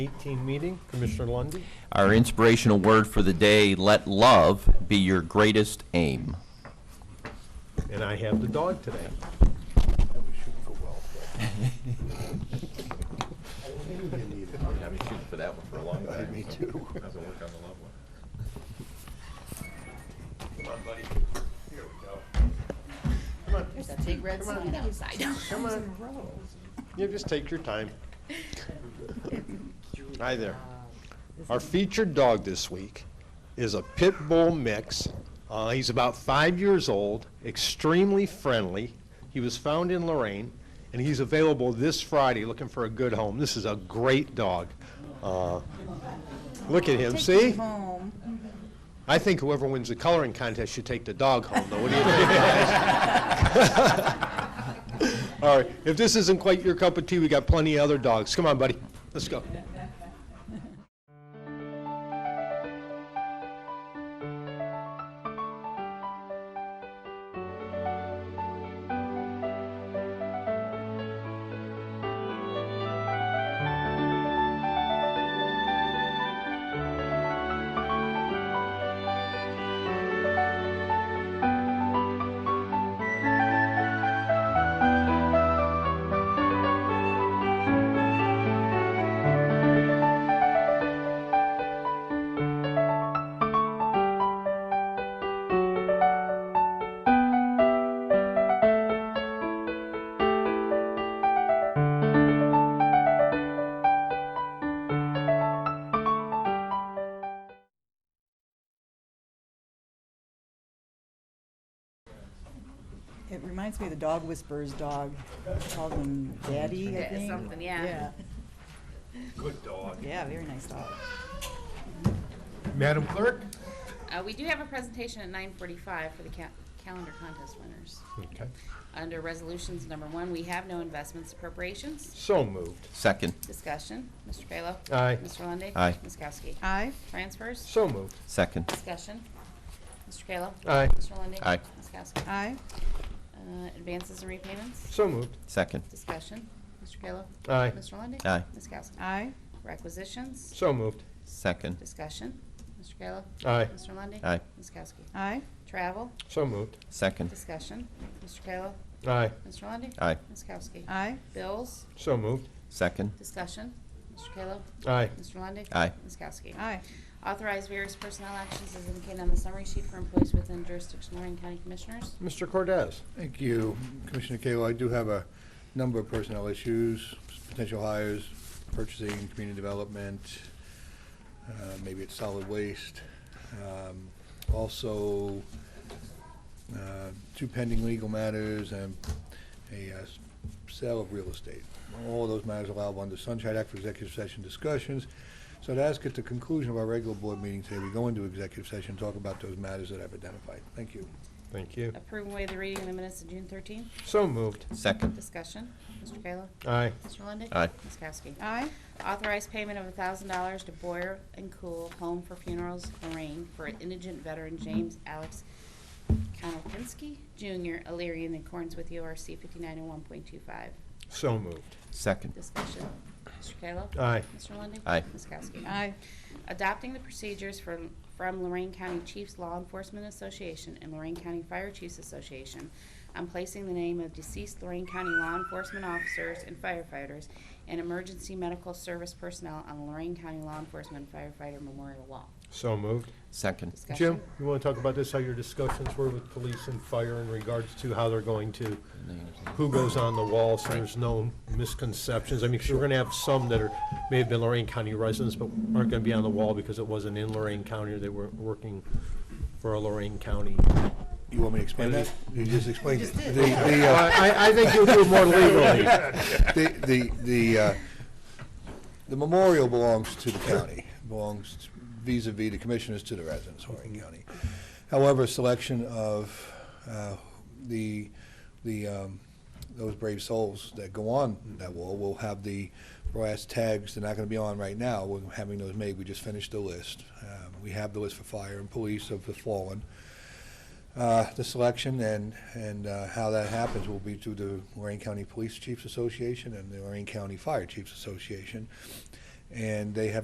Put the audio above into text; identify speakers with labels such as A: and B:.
A: 18 meeting. Commissioner Lundy.
B: Our inspirational word for the day, let love be your greatest aim.
A: and I have the dog today.
B: I've been shooting for that one for a long time. Me too. How's it work on the love one?
C: There's that big red sign outside.
A: Come on. Yeah, just take your time. Hi there. Our featured dog this week is a pit bull mix. Uh, he's about five years old, extremely friendly. He was found in Lorraine, and he's available this Friday looking for a good home. This is a great dog. Uh, look at him, see?
C: Home.
A: I think whoever wins the coloring contest should take the dog home, though. What do you think, guys? All right, if this isn't quite your cup of tea, we got plenty of other dogs. Come on, buddy, let's go.
D: It reminds me of the dog whisperer's dog, called him Daddy, I
C: Yeah,
D: think.
C: something, yeah.
A: Good dog.
D: Yeah, very nice dog.
A: Madam Clerk?
C: Uh, we do have a presentation at nine forty-five for the ca- calendar contest winners.
A: Okay.
C: Under resolutions number one, we have no investments appropriations.
A: So moved.
B: Second,
C: Discussion, Mr. Kayla.
A: Aye.
C: Mr. Lundy.
B: Aye.
C: Ms. Kowski.
D: Aye.
C: Transfers,
A: So moved.
B: second,
C: discussion, Mr. Kayla.
A: Aye.
C: Mr. Lundy.
B: Aye.
C: Ms. Kowski.
D: Aye.
C: Uh, advances and repayments,
A: So moved.
B: second,
C: discussion, Mr. Kayla.
A: Aye.
C: Mr. Lundy.
B: Aye.
C: Ms. Kowski.
D: Aye.
C: Requisitions,
A: So moved.
B: second,
C: discussion, Mr. Kayla.
A: Aye.
C: Mr. Lundy.
B: Aye. Mm.
C: Ms. Kowski.
D: Aye.
C: Travel,
A: So moved.
B: second,
C: Discussion, Mr. Kayla,
A: Aye.
C: Mr. Lundy,
B: aye,
C: Ms. Kowski.
D: Aye.
C: Bills,
A: So moved.
B: second,
C: discussion, Mr. Kayla,
A: Aye.
C: Mr. Lundy,
B: Aye.
C: Ms. Kowski.
D: Aye.
C: Authorize various personnel actions as indicated on the summary sheet for employees within jurisdiction of Lorraine County Commissioners.
A: Mr. Cordez?
E: Thank you, Commissioner Kayla. I do have a number of personnel issues, potential hires, purchasing, community development, uh, maybe it's solid waste. Um, Also, uh, two pending legal matters and a uh, s- sale of real estate. All those matters allowable under Sunshine Act for executive session discussions. So to ask at the conclusion of our regular board meeting today, we go into executive session, talk about those matters that I've identified. Thank you.
A: Thank you.
C: Approve and waive the reading of the minutes of June thirteenth.
A: So moved.
B: second,
C: Discussion, Mr. Kayla,
A: Aye.
C: Mr. Lundy,
B: Aye.
C: Ms. Kowski.
D: Aye.
C: Authorize payment of thousand dollars to Boyer and Cool Home for Funerals Lorraine for indigent veteran James Alex Konopinski Jr. Illyria in accordance with URC fifty-nine and one point two five.
A: So moved.
B: second,
C: Discussion. Mr. Kayla?
A: Aye.
C: Mr. Lundey?
B: Aye.
C: Ms. Kowski?
D: Aye.
C: Adopting the procedures from, from Lorraine County Chiefs Law Enforcement Association and Lorraine County Fire Chiefs Association on placing the name of deceased Lorraine County law enforcement officers and firefighters and emergency medical service personnel on the Lorraine County Law Enforcement Firefighter Memorial Wall.
A: So moved.
B: second,
C: Discussion.
A: Jim, you want to talk about this, how your discussions were with police and fire in regards to how they're going to, who goes on the wall, so there's no misconceptions? I mean, 'cause we're going to have some that are, may have been Lorraine County residents, but aren't going to be on the wall because it wasn't in Lorraine County, or they weren't working for a Lorraine County.
E: You want me to explain that? You just explained it. The- the, uh,
A: I, I think you'll do more legally.
E: The, the, the, uh, the memorial belongs to the county, belongs vis a vis the commissioners to the residents of Lorraine County. However, selection of uh, the, the, um, those brave souls that go on that wall will have the brass tags, they're not going to be on right now, we're having those made, we just finished the list. Um, We have the list for fire and police of the fallen uh, the selection and, and uh, how that happens will be through the Lorraine County Police Chiefs Association and the Lorraine County Fire Chiefs Association. and they have